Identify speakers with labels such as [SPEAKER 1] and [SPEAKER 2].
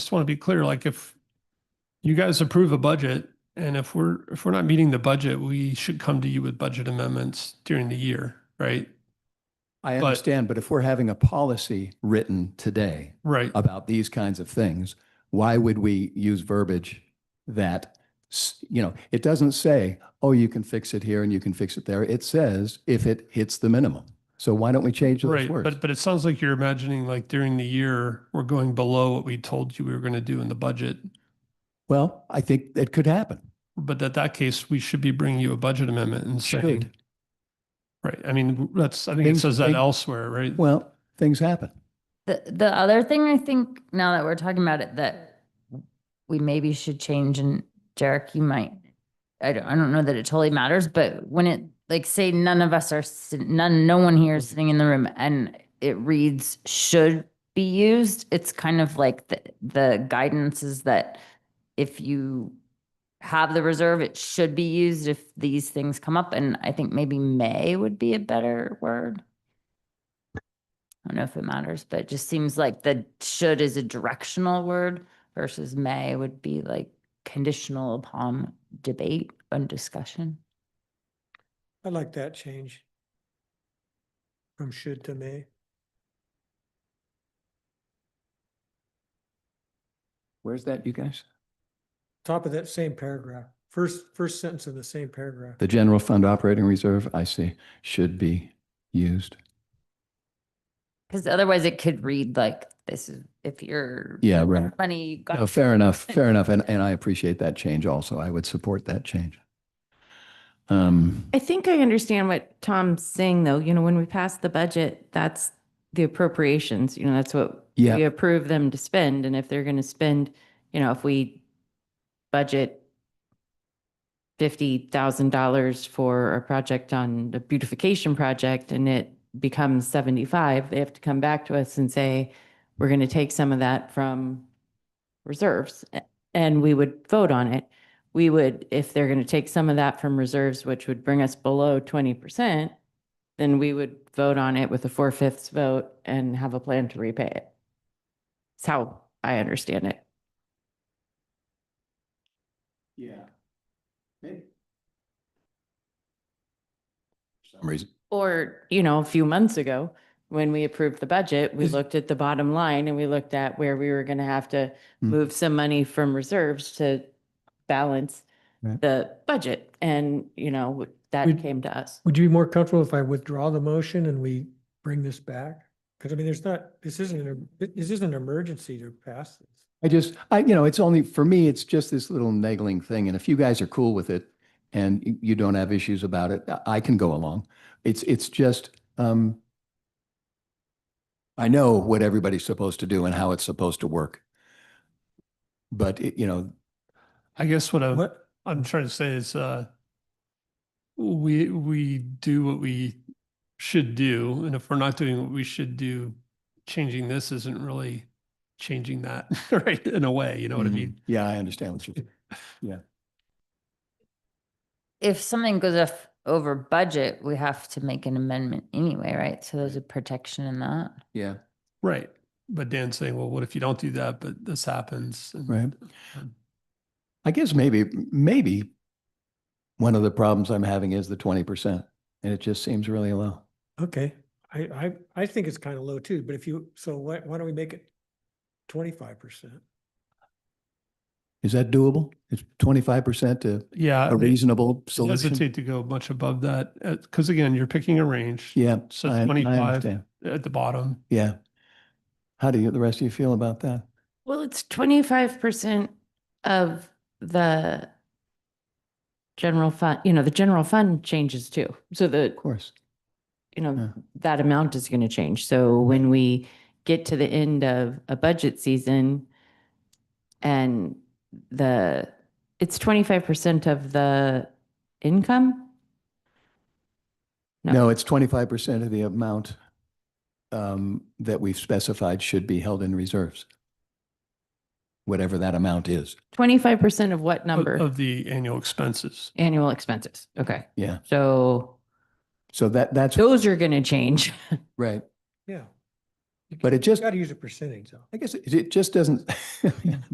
[SPEAKER 1] just want to be clear, like if you guys approve a budget and if we're, if we're not meeting the budget, we should come to you with budget amendments during the year, right?
[SPEAKER 2] I
[SPEAKER 1] But-
[SPEAKER 2] understand, but if we're having a policy written today
[SPEAKER 1] Right.
[SPEAKER 2] about these kinds of things, why would we use verbiage that, s- you know, it doesn't say, oh, you can fix it here and you can fix it there. It says if it hits the minimum. So why don't we change those
[SPEAKER 1] Right.
[SPEAKER 2] words?
[SPEAKER 1] But, but it sounds like you're imagining like during the year, we're going below what we told you we were going to do in the budget.
[SPEAKER 2] Well, I think it could happen.
[SPEAKER 1] But at that case, we should be bringing you a budget amendment and saying,
[SPEAKER 2] Should.
[SPEAKER 1] right. I mean, that's, I think it
[SPEAKER 2] Things-
[SPEAKER 1] says that
[SPEAKER 2] thing-
[SPEAKER 1] elsewhere, right?
[SPEAKER 2] Well, things happen.
[SPEAKER 3] The, the other thing I think now that we're talking about it, that we maybe should change and Derek, you might, I don't, I don't know that it totally matters, but when it, like say none of us are, sit- none, no one here is sitting in the room and it reads should be used, it's kind of like the, the guidance is that if you have the reserve, it should be used if these things come up. And I think maybe may would be a better word. I don't know if it matters, but it just seems like the should is a directional word versus may would be like conditional upon debate and discussion.
[SPEAKER 4] I like that change. From should to may.
[SPEAKER 2] Where's that, you guys?
[SPEAKER 4] Top of that same paragraph, first, first sentence of the same paragraph.
[SPEAKER 2] The general fund operating reserve, I see, should be used.
[SPEAKER 3] Because otherwise it could read like this is if you're
[SPEAKER 2] Yeah, right.
[SPEAKER 3] money you got
[SPEAKER 2] No, fair enough, fair enough. And, and I appreciate that change also. I would support that change. Um,
[SPEAKER 5] I think I understand what Tom's saying, though. You know, when we pass the budget, that's the appropriations, you know, that's what we
[SPEAKER 2] yeah,
[SPEAKER 5] approve them to spend. And if they're going to spend, you know, if we budget $50,000 for a project on a beautification project and it becomes 75, they have to come back to us and say, we're going to take some of that from reserves a- and we would vote on it. We would, if they're going to take some of that from reserves, which would bring us below 20%, then we would vote on it with a four-fifths vote and have a plan to repay it. It's how I understand it.
[SPEAKER 2] Yeah. Maybe. For some reason.
[SPEAKER 5] Or, you know, a few months ago, when we approved the budget, we
[SPEAKER 2] Is-
[SPEAKER 5] looked at the bottom line and we looked at where we were going to have to
[SPEAKER 2] Mm.
[SPEAKER 5] move some money from reserves to balance
[SPEAKER 2] Right.
[SPEAKER 5] the budget. And, you know, that
[SPEAKER 4] We'd-
[SPEAKER 5] came to us.
[SPEAKER 4] Would you be more comfortable if I withdraw the motion and we bring this back? Because I mean, there's not, this isn't, an this isn't an emergency to pass this.
[SPEAKER 2] I just, I, you know, it's only, for me, it's just this little niggling thing. And if you guys are cool with it and y- you don't have issues about it, I- I can go along. It's, it's just, um, I know what everybody's supposed to do and how it's supposed to work. But, it- you know,
[SPEAKER 1] I guess
[SPEAKER 2] Uh.
[SPEAKER 1] what I.
[SPEAKER 4] What,
[SPEAKER 1] I'm trying to say is uh we we do what we should do, and if we're not doing what we should do, changing this isn't really changing that, right? In a way, you know what I
[SPEAKER 2] Mhm.
[SPEAKER 1] mean?
[SPEAKER 2] Yeah, I understand what you,
[SPEAKER 3] if something goes off over budget, we have to make an amendment anyway, right? So there's a protection in that.
[SPEAKER 2] yeah,
[SPEAKER 1] Right. But Dan's saying, well, what if you don't do that, but this happens? And-
[SPEAKER 2] right. I guess maybe, maybe one of the problems I'm having is the twenty percent and it just seems really low.
[SPEAKER 4] okay, I, I, I think it's kind of low too, but if you, so why, why don't we make it twenty-five percent?
[SPEAKER 2] Is that doable? It's twenty-five percent to
[SPEAKER 1] Yeah.
[SPEAKER 2] a reasonable
[SPEAKER 1] I
[SPEAKER 2] solution?
[SPEAKER 1] hesitate to go much above that, because again, you're picking a range
[SPEAKER 2] Yeah.
[SPEAKER 1] So
[SPEAKER 2] I- I
[SPEAKER 1] 25.
[SPEAKER 2] understand.
[SPEAKER 1] at the bottom.
[SPEAKER 2] Yeah. How do you, the rest of you feel about that?
[SPEAKER 5] Well, it's twenty-five percent of the general fund, you know, the general fund changes too. So the,
[SPEAKER 2] Of course.
[SPEAKER 5] you know,
[SPEAKER 2] Yeah.
[SPEAKER 5] that amount is going to change. So when we get to the end of a budget season and the, it's twenty-five percent of the income? No.
[SPEAKER 2] No, it's twenty-five percent of the amount um, that we've specified should be held in reserves. Whatever that amount is.
[SPEAKER 5] Twenty-five percent of what
[SPEAKER 1] of-
[SPEAKER 5] number?
[SPEAKER 1] Of the annual expenses.
[SPEAKER 5] Annual expenses. Okay.
[SPEAKER 2] Yeah.
[SPEAKER 5] So
[SPEAKER 2] So that, that's
[SPEAKER 5] those are going to change.
[SPEAKER 2] right.
[SPEAKER 4] Yeah,
[SPEAKER 2] But it just,
[SPEAKER 4] Got to use a percentage though.
[SPEAKER 2] I guess it it just doesn't,